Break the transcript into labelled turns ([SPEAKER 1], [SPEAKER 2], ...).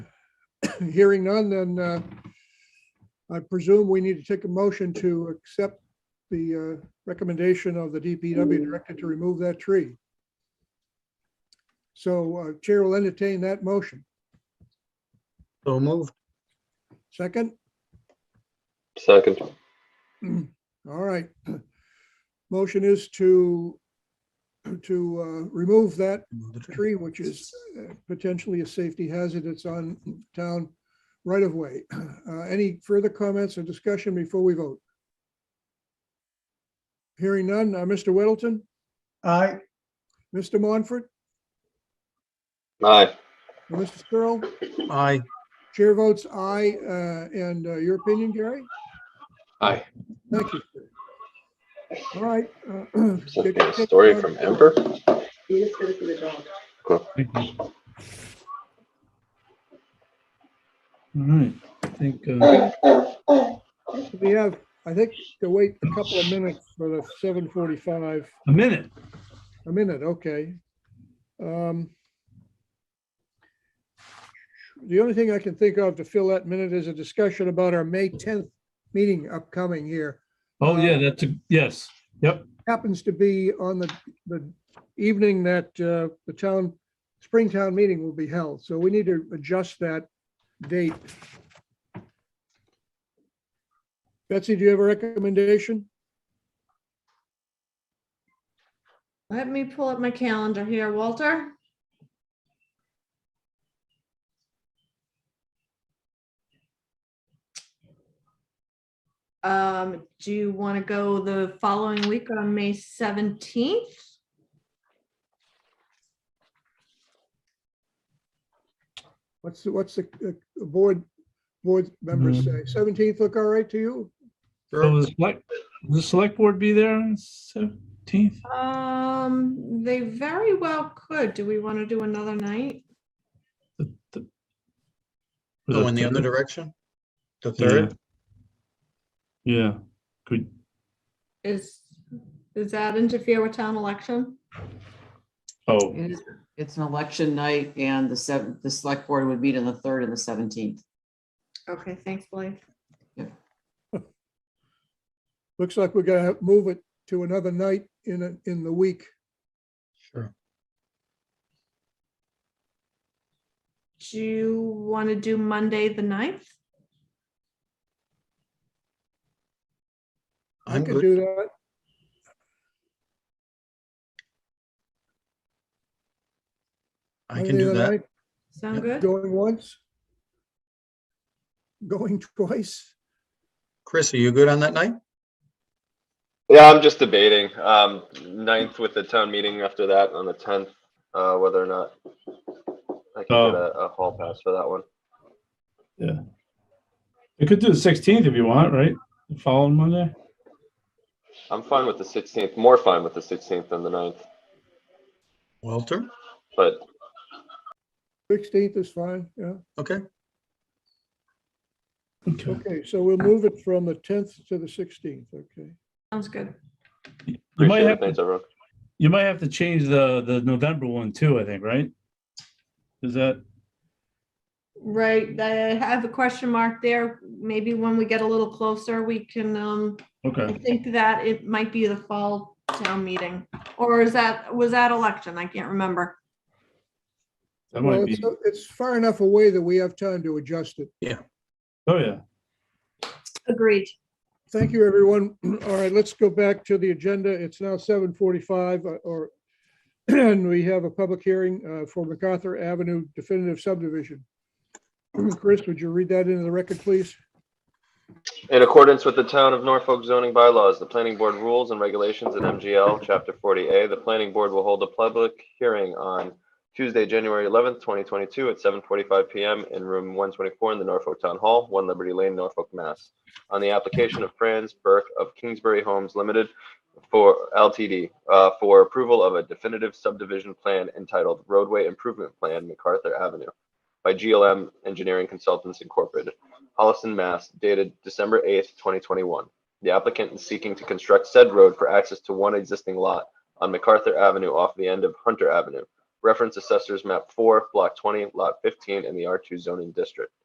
[SPEAKER 1] Hearing none, then uh, I presume we need to take a motion to accept the uh, recommendation of the DPW director to remove that tree. So uh, Chair will entertain that motion.
[SPEAKER 2] So moved.
[SPEAKER 1] Second?
[SPEAKER 3] Second,
[SPEAKER 1] All right. Motion is to, to uh, remove that
[SPEAKER 2] Remove the tree.
[SPEAKER 1] tree, which is uh, potentially a safety hazard. It's on town right of way. Uh, Any further comments or discussion before we vote? Hearing none. Uh, Mr. Whittleton,
[SPEAKER 4] Aye,
[SPEAKER 1] Mr. Monfort,
[SPEAKER 3] aye,
[SPEAKER 1] and Mr. Searle,
[SPEAKER 2] Aye,
[SPEAKER 1] chair votes aye. uh, And uh, your opinion, Gary?
[SPEAKER 3] Aye.
[SPEAKER 1] Thank you. sir. All right. uh,
[SPEAKER 3] something, a story from Ember?
[SPEAKER 5] You just did it for the dog.
[SPEAKER 4] all right, I think, uh,
[SPEAKER 1] We have, I think, to wait a couple of minutes for the 7:45.
[SPEAKER 4] a minute.
[SPEAKER 1] A minute, okay. Um, The only thing I can think of to fill that minute is a discussion about our May 10th meeting upcoming here.
[SPEAKER 4] Oh, yeah, that's a, yes, yep,
[SPEAKER 1] Happens to be on the, the evening that uh, the town, Springtown meeting will be held, so we need to adjust that date. Betsy, do you have a recommendation?
[SPEAKER 6] Let me pull up my calendar here, Walter. Um, do you want to go the following week on May seventeenth?
[SPEAKER 1] What's, the what's the uh, board, board members say?
[SPEAKER 4] Mm.
[SPEAKER 1] 17th look all right to you?
[SPEAKER 4] so the select, will the select board be there on seventeenth?
[SPEAKER 6] Um, they very well could. Do we want to do another night?
[SPEAKER 2] go Oh, in the other direction? The
[SPEAKER 4] Yeah.
[SPEAKER 2] third?
[SPEAKER 4] Yeah, could,
[SPEAKER 6] Is, does that interfere with town election?
[SPEAKER 4] oh,
[SPEAKER 7] It is- It's an election night and the seventh, the select board would meet on the third and the seventeenth.
[SPEAKER 6] Okay, thanks, Blake.
[SPEAKER 1] Looks like we're gonna have- move it to another night in, a- in the week.
[SPEAKER 2] Sure.
[SPEAKER 6] Do you want to do Monday, the 9th?
[SPEAKER 1] I
[SPEAKER 2] I'm
[SPEAKER 1] could
[SPEAKER 2] good.
[SPEAKER 1] do that.
[SPEAKER 2] I can do that.
[SPEAKER 1] Monday
[SPEAKER 6] Sound
[SPEAKER 2] Yep.
[SPEAKER 1] night,
[SPEAKER 6] good?
[SPEAKER 1] Going once. Going twice.
[SPEAKER 2] Chris, are you good on that night?
[SPEAKER 3] Yeah, I'm just debating, um, ninth with the town meeting after that on the tenth, uh, whether or not I
[SPEAKER 4] Oh.
[SPEAKER 3] can get a, a hall pass for that one.
[SPEAKER 4] you could do the sixteenth if you want, right? The following Monday?
[SPEAKER 3] I'm fine with the sixteenth, more fine with the sixteenth than the ninth,
[SPEAKER 2] Walter?
[SPEAKER 3] but
[SPEAKER 1] 16th is fine, yeah.
[SPEAKER 2] Okay,
[SPEAKER 4] Okay,
[SPEAKER 1] Okay, so we'll move it from the 10th to the 16th, okay?
[SPEAKER 6] Sounds good.
[SPEAKER 4] you might
[SPEAKER 3] appreciate it,
[SPEAKER 4] have,
[SPEAKER 3] thanks
[SPEAKER 4] to-
[SPEAKER 3] everyone.
[SPEAKER 4] you might have to change the, the November one too, I think, right? Is that,
[SPEAKER 6] Right, I have a question mark there. Maybe when we get a little closer, we can, um, I
[SPEAKER 4] okay,
[SPEAKER 6] think that it might be the fall town meeting. Or is that, was that election? I can't remember.
[SPEAKER 4] that
[SPEAKER 1] Well,
[SPEAKER 4] might be,
[SPEAKER 1] it's it's far enough away that we have time to adjust it.
[SPEAKER 4] oh, yeah.
[SPEAKER 6] Agreed.
[SPEAKER 1] Thank you, everyone. All right, let's go back to the agenda. It's now seven forty-five uh, or and we have a public hearing uh, for MacArthur Avenue definitive subdivision. Chris, would you read that into the record, please?
[SPEAKER 3] In accordance with the Town of Norfolk zoning bylaws, the Planning Board rules and regulations in MGL Chapter 40A, the Planning Board will hold a public hearing on Tuesday, January 11th, 2022 at 7:45 PM in Room 124 in the Norfolk Town Hall, 1 Liberty Lane, Norfolk, Mass. On the application of Franz Burke of Kingsbury Homes Limited for LTD uh, for approval of a definitive subdivision plan entitled roadway improvement plan MacArthur Avenue by GLM Engineering Consultants Incorporated. Holliston, Mass, dated December 8th, 2021. The applicant is seeking to construct said road for access to one existing lot on MacArthur Avenue off the end of Hunter Avenue. Reference Assessors Map 4, Block 20, Lot 15 in the R2 zoning district.